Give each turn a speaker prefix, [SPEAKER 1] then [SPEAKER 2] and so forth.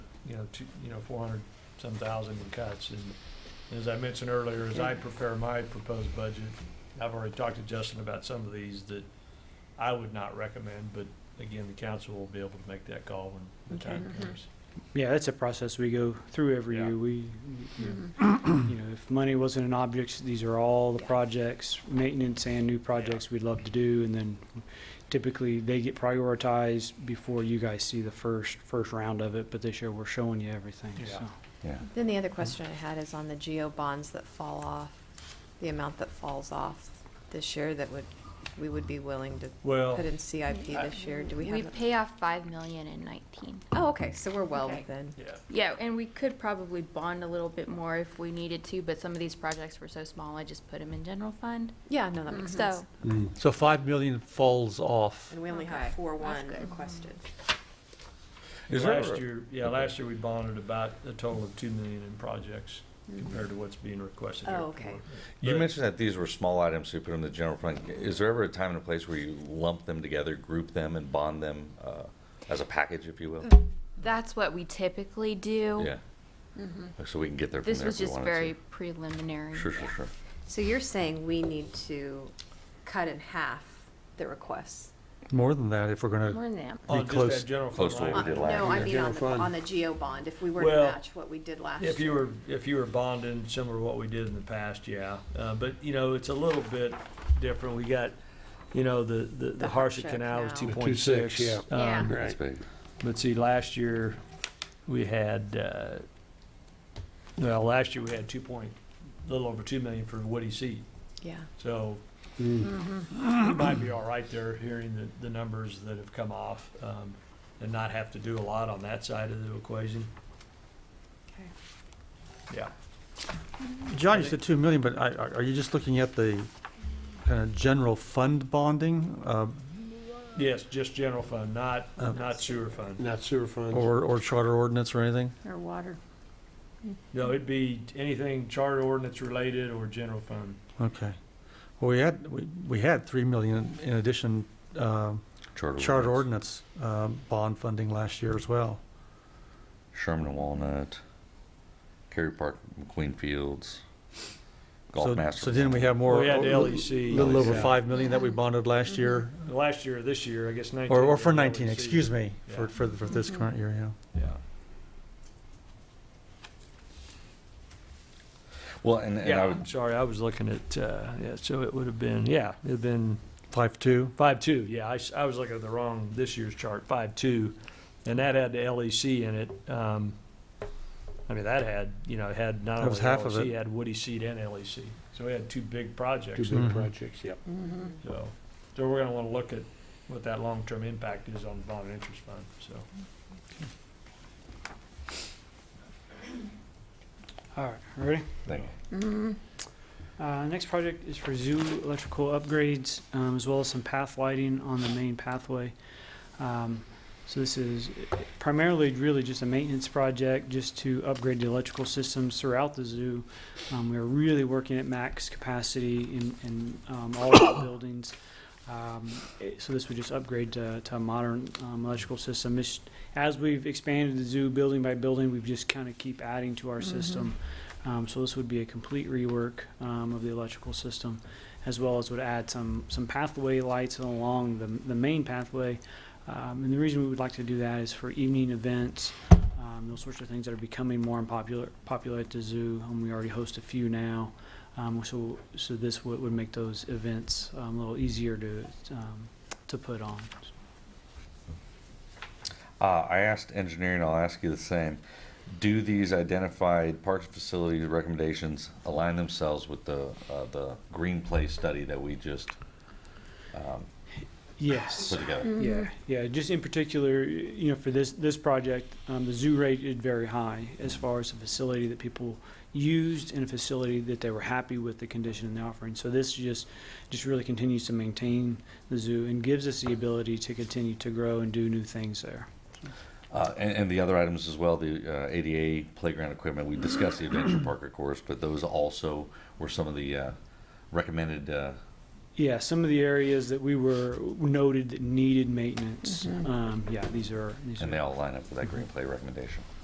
[SPEAKER 1] you know, two, you know, four hundred some thousand in cuts. And as I mentioned earlier, as I prepare my proposed budget, I've already talked to Justin about some of these that I would not recommend, but again, the council will be able to make that call when the
[SPEAKER 2] Okay. Mm-hmm.
[SPEAKER 1] time comes.
[SPEAKER 3] Yeah, that's a process we go through every
[SPEAKER 1] Yeah.
[SPEAKER 3] year. We,
[SPEAKER 2] Mm-hmm.
[SPEAKER 3] you know, if money wasn't an object, these are all the
[SPEAKER 2] Yeah.
[SPEAKER 3] projects, maintenance and new projects we'd love to do. And then typically they get prioritized before you guys see the first, first round of it. But this year we're showing you everything,
[SPEAKER 1] Yeah.
[SPEAKER 3] so.
[SPEAKER 4] Yeah.
[SPEAKER 2] Then the other question I had is on the geo bonds that fall off, the amount that falls off this year that would, we would be willing to
[SPEAKER 1] Well,
[SPEAKER 2] put in CIP this year, do we have?
[SPEAKER 5] We
[SPEAKER 2] a-
[SPEAKER 5] pay off five million in nineteen.
[SPEAKER 2] Oh, okay, so we're well
[SPEAKER 5] Okay.
[SPEAKER 2] within.
[SPEAKER 1] yeah,
[SPEAKER 5] Yeah, and we could probably bond a little bit more if we needed to, but some of these projects were so small, I just put them in general fund.
[SPEAKER 2] Yeah, no, that makes sense.
[SPEAKER 5] So,
[SPEAKER 6] So 5 million falls off.
[SPEAKER 2] And we only
[SPEAKER 5] Okay,
[SPEAKER 2] have four one
[SPEAKER 5] good.
[SPEAKER 2] requested.
[SPEAKER 4] Is there
[SPEAKER 1] last
[SPEAKER 4] a-
[SPEAKER 1] year, yeah, last year we bonded about a total of two million in projects compared to what's being requested here.
[SPEAKER 2] Mm-hmm. Oh, okay.
[SPEAKER 4] You
[SPEAKER 1] But-
[SPEAKER 4] mentioned that these were small items, so you put them in the general fund. Is there ever a time and a place where you lump them together, group them, and bond them uh, as a package, if you will?
[SPEAKER 5] that's what we typically do.
[SPEAKER 4] Yeah.
[SPEAKER 2] Mm-hmm.
[SPEAKER 4] So we can get there from
[SPEAKER 5] This
[SPEAKER 4] there
[SPEAKER 5] was
[SPEAKER 4] if we
[SPEAKER 5] just
[SPEAKER 4] wanted
[SPEAKER 5] very
[SPEAKER 4] to.
[SPEAKER 5] preliminary.
[SPEAKER 4] Sure, sure, sure.
[SPEAKER 2] So you're saying we need to cut in half the requests?
[SPEAKER 6] More than that, if we're going to,
[SPEAKER 5] More than that.
[SPEAKER 1] On
[SPEAKER 6] Be
[SPEAKER 1] just
[SPEAKER 6] close-
[SPEAKER 1] that general
[SPEAKER 4] close
[SPEAKER 1] fund
[SPEAKER 4] to what we
[SPEAKER 1] line.
[SPEAKER 4] did
[SPEAKER 2] Uh, No,
[SPEAKER 4] last year.
[SPEAKER 2] I mean on
[SPEAKER 6] General
[SPEAKER 2] the,
[SPEAKER 6] fund.
[SPEAKER 2] on the geo bond, if we were to
[SPEAKER 1] Well,
[SPEAKER 2] match what we did last year.
[SPEAKER 1] If you were, if you were bonding similar to what we did in the past, yeah. Uh, but, you know, it's a little bit different. We got, you know, the, the, the
[SPEAKER 2] The
[SPEAKER 1] Harsha
[SPEAKER 2] Harsha
[SPEAKER 1] Canal was two
[SPEAKER 2] Canal.
[SPEAKER 1] point six. Um,
[SPEAKER 6] 2.6, yeah.
[SPEAKER 5] Yeah.
[SPEAKER 4] That's big.
[SPEAKER 1] But see, last year, we had, uh, well, last year we had two point, a little over two million for Woody Seat.
[SPEAKER 2] Yeah.
[SPEAKER 1] So we might be all right there, hearing the, the numbers that have come off, um, and not have to do a lot on that side of the equation.
[SPEAKER 2] Okay.
[SPEAKER 1] Yeah.
[SPEAKER 6] John, you said 2 million, but I- are are you just looking at the kind of general fund bonding? uh,
[SPEAKER 1] Yes, just general fund, not,
[SPEAKER 6] Uh,
[SPEAKER 1] not sewer fund.
[SPEAKER 7] Not sewer funds.
[SPEAKER 6] Or, or charter ordinance or anything?
[SPEAKER 2] Or water.
[SPEAKER 1] No, it'd be anything charter ordinance related or general fund.
[SPEAKER 6] Okay. Well, we had, we we had 3 million in addition, um, charter ordinance um, bond funding last year as well.
[SPEAKER 4] Sherman and Walnut, Cary Park, McQueen Fields, Golf
[SPEAKER 6] So-
[SPEAKER 4] Master.
[SPEAKER 6] So didn't we have more?
[SPEAKER 1] We had the E
[SPEAKER 6] a
[SPEAKER 1] LEC.
[SPEAKER 6] Little over
[SPEAKER 1] Yeah.
[SPEAKER 6] 5 million that we bonded last year,
[SPEAKER 1] Last year, this year, I guess nineteen. E
[SPEAKER 6] or, or
[SPEAKER 1] we
[SPEAKER 6] for
[SPEAKER 1] had
[SPEAKER 6] 19,
[SPEAKER 1] LEC.
[SPEAKER 6] excuse me, for,
[SPEAKER 1] Yeah.
[SPEAKER 6] for for this
[SPEAKER 2] Mhm.
[SPEAKER 6] current year, yeah.
[SPEAKER 1] Yeah.
[SPEAKER 4] Well, and, and
[SPEAKER 1] Yeah,
[SPEAKER 4] I would,
[SPEAKER 1] I'm sorry, I was looking at, uh, yeah, so it would have been, yeah, it'd been
[SPEAKER 6] 5.2?
[SPEAKER 1] five-two, yeah, I, s- I was looking at the wrong, this year's chart, five-two, and that had the LEC in it, um, I mean, that had, you know, it had not
[SPEAKER 6] That
[SPEAKER 1] only
[SPEAKER 6] was half of
[SPEAKER 1] LEC,
[SPEAKER 6] it.
[SPEAKER 1] it had Woody Seed and LEC, so we had two big projects.
[SPEAKER 7] Two
[SPEAKER 6] Mhm.
[SPEAKER 7] big
[SPEAKER 4] Mm-hmm.
[SPEAKER 7] projects, yep.
[SPEAKER 2] Mm-hmm.
[SPEAKER 1] So, so we're gonna wanna look at what that long-term impact is on the bond and interest fund, so.
[SPEAKER 3] All right, ready?
[SPEAKER 4] thank you.
[SPEAKER 2] Mm-hmm.
[SPEAKER 3] Uh, next project is for zoo electrical upgrades, um, as well as some path lighting on the main pathway. Um, so this is primarily really just a maintenance project, just to upgrade the electrical systems throughout the zoo. Um, we are really working at max capacity in, in um, all of the buildings. Um, it- so this would just upgrade to, to a modern um, electrical system. It's- as we've expanded the zoo building by building, we've just kind of keep adding to our
[SPEAKER 2] Mhm.
[SPEAKER 3] system. Um, so this would be a complete rework um, of the electrical system, as well as would add some, some pathway lights along the, the main pathway. Um, and the reason we would like to do that is for evening events, um, those sorts of things that are becoming more unpopular, popular at the zoo. Um, we already host a few now. Um, so, so this would, would make those events um, a little easier to, um, to put on.
[SPEAKER 4] Uh, I asked engineering, I'll ask you the same. Do these identified parks and facilities recommendations align themselves with the, uh, the green play study that we just, um,
[SPEAKER 3] Yes.
[SPEAKER 4] put together?
[SPEAKER 3] Yeah, yeah, just in particular, you know, for this, this project, um, the zoo rated very high as far as a facility that people used and a facility that they were happy with the condition and the offering. So this just, just really continues to maintain the zoo and gives us the ability to continue to grow and do new things there.
[SPEAKER 4] Uh, and, and the other items as well, the, uh, ADA playground equipment, we discussed the adventure park, of course, but those also were some of the, uh, recommended, uh,
[SPEAKER 3] Yeah, some of the areas that we were noted that needed maintenance,
[SPEAKER 2] Mhm.
[SPEAKER 3] um, yeah, these are, these are.
[SPEAKER 4] and they all line up with that green play recommendation.